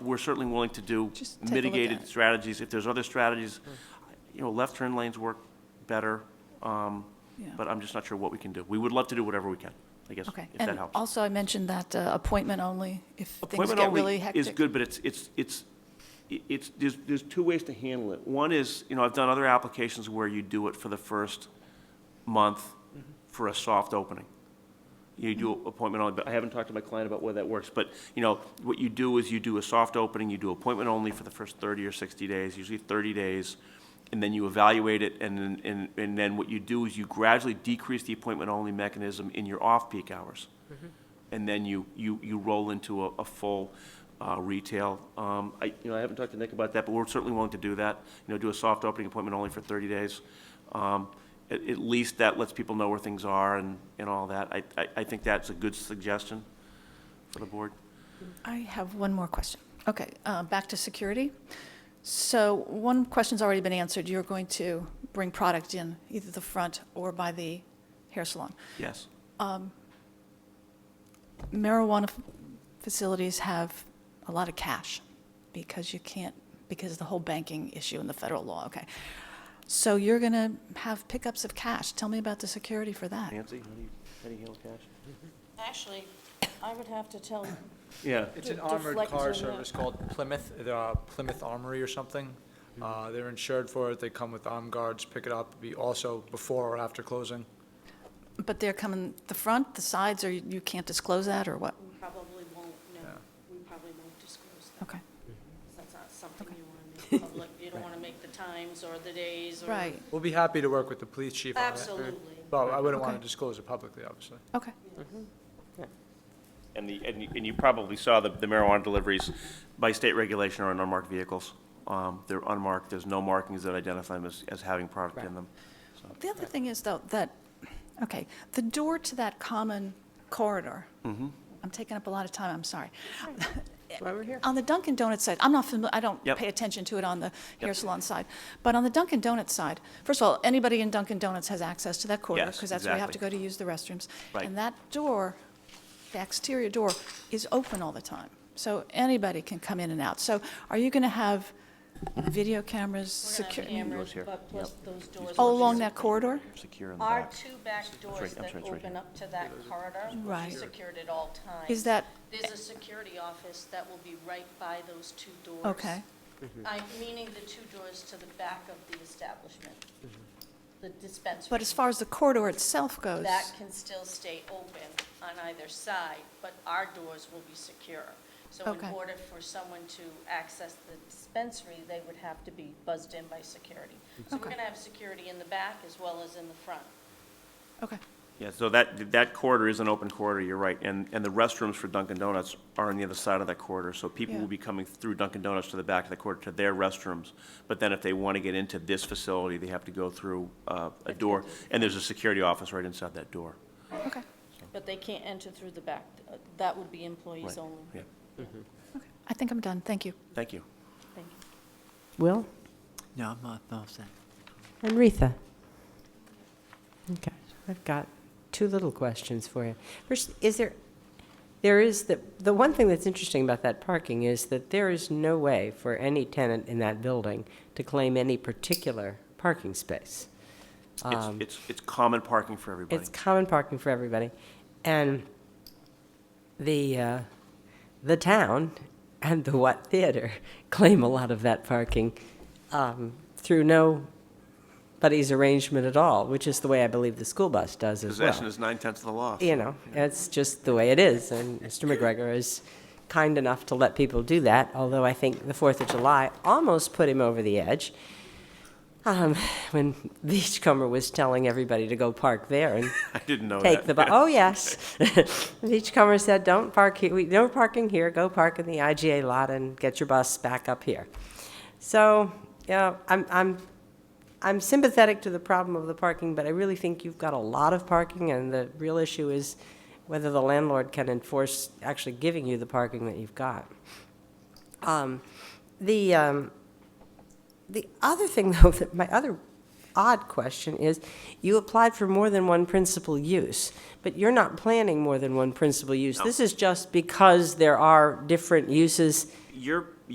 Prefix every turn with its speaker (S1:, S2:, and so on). S1: we're certainly willing to do
S2: Just take a look at
S1: mitigated
S2: it. Mm-hmm.
S1: strategies. If there's other strategies, you know, left turn lanes work better, um,
S2: Yeah.
S1: but I'm just not sure what we can do. We would love to do whatever we can, I guess,
S2: Okay.
S1: if that
S2: And
S1: helps.
S2: also, I mentioned that uh, appointment only, if things
S1: Appointment
S2: get
S1: only
S2: really
S1: is
S2: hectic.
S1: good, but it's, it's, it's, it's, there's, there's two ways to handle it. One is, you know, I've done other applications where you do it for the first month for a soft opening. You do
S2: Mm-hmm.
S1: appointment only, but I haven't talked to my client about whether that works, but, you know, what you do is you do a soft opening, you do appointment only for the first thirty or sixty days, usually thirty days, and then you evaluate it, and then, and, and then what you do is you gradually decrease the appointment only mechanism in your off-peak hours and then you, you, you roll into a, a full uh, retail. Um, I, you know, I haven't talked to Nick about that, but we're certainly willing to do that. You know, do a soft opening appointment only for 30 days. Um, At, at least that lets people know where things are and, and all that. I, I, I think that's a good suggestion for the board.
S2: I have one more question. Okay, uh, back to security. So one question's already been answered. You're going to bring product in either the front or by the hair salon.
S1: Yes.
S2: marijuana f- facilities have a lot of cash because you can't, because of the whole banking issue and the federal law, okay. So you're going to have pickups of cash. Tell me about the security for that.
S1: Nancy, how do you, how do you handle cash?
S3: Actually, I would have to tell,
S1: Yeah.
S4: It's an
S3: De-
S4: armored
S3: deflect
S4: car
S3: zoom out.
S4: service called Plymouth, they're, uh, Plymouth Armory or something. Uh, They're insured for it, they come with armed guards, pick it up, be also before or after closing.
S2: But they're coming, the front, the sides, or you you can't disclose that, or what?
S3: we probably won't, no,
S4: Yeah.
S3: we probably won't disclose that.
S2: Okay,
S3: 'cause That's not something you want to make public. You don't want to make the times or the days or.
S2: right,
S4: We'll be happy to work with the police chief on it.
S3: Absolutely.
S4: But I wouldn't want to
S2: Okay.
S4: disclose it publicly, obviously.
S2: okay.
S1: And the, and you, and you probably saw the the marijuana deliveries by state regulation are on unmarked vehicles. Um, They're unmarked, there's no markings that identify them as, as having product in them.
S2: The other thing is, though, that, okay, the door to that common corridor,
S1: Mm-hmm.
S2: I'm taking up a lot of time, I'm sorry.
S5: why we're here.
S2: On the Dunkin' Donuts side, I'm not familiar, I don't
S1: Yep.
S2: pay attention to it on the hair salon side, but on the Dunkin' Donuts side, first of all, anybody in Dunkin' Donuts has access to that corridor,
S1: Yes,
S2: because that's where you have to go
S1: exactly.
S2: to use the restrooms.
S1: Right.
S2: And that door, the exterior door, is open all the time, so anybody can come in and out. So are you going to have video cameras,
S3: We're gonna have
S2: secure,
S3: cameras,
S1: Doors here.
S3: but plus those doors.
S2: all
S3: which
S2: along
S3: is-
S2: that corridor?
S1: Secure in the
S3: Are
S1: back.
S3: two back doors
S1: right, I'm
S3: that
S1: sorry, it's right
S3: open
S1: here.
S3: up to that corridor,
S2: Right.
S3: which is secured at all times.
S2: Is that,
S3: There's a security office that will be right by those two doors.
S2: okay.
S1: Mm-hmm.
S3: I- Meaning the two doors to the back of the establishment,
S1: Mm-hmm.
S3: the dispensary.
S2: But as far as the corridor itself goes,
S3: That can still stay open on either side, but our doors will be secure. So in
S2: Okay.
S3: order for someone to access the dispensary, they would have to be buzzed in by security. So we're
S2: Okay.
S3: going to have security in the back as well as in the front.
S2: okay,
S1: Yeah, so that, that corridor is an open corridor, you're right, and, and the restrooms for Dunkin' Donuts are on the other side of that corridor, so people
S2: Yeah.
S1: will be coming through Dunkin' Donuts to the back of the corridor to their restrooms, but then if they want to get into this facility, they have to go through uh, a door, and there's a security office right inside that door.
S2: okay.
S3: But they can't enter through the back. Uh, That would be
S1: Right.
S3: employees only.
S1: Yeah,
S2: Okay. I think I'm done, thank you.
S1: thank you.
S3: Thank you.
S5: Will?
S6: No, I'm not, no, i
S5: And Retha? Okay, I've got two little questions for you. First, is there, there is, the, the one thing that's interesting about that parking is that there is no way for any tenant in that building to claim any particular parking space.
S1: It's,
S5: Um,
S1: it's, it's common parking for everybody.
S5: It's common parking for everybody. And the, uh, the town and the Watt Theater claim a lot of that parking um, through nobody's arrangement at all, which is the way I believe the school bus does as well
S1: Possession is nine tenths of the law.
S5: you know, that's just the way it is. And Mr. McGregor is kind enough to let people do that, although I think the 4th of July almost put him over the edge um, when Beachcomber was telling everybody to go park there and
S1: I didn't know that.
S5: take the bus. Oh, yes. Beachcomber said, don't park here, we- no parking here, go park in the IGA lot and get your bus back up here. So, you know, I'm, I'm, I'm sympathetic to the problem of the parking, but I really think you've got a lot of parking, and the real issue is whether the landlord can enforce actually giving you the parking that you've got. Um, The, um, the other thing, though, that my other odd question is, you applied for more than one principal use, but you're not planning more than one principal use. This is just because there are different uses
S1: Your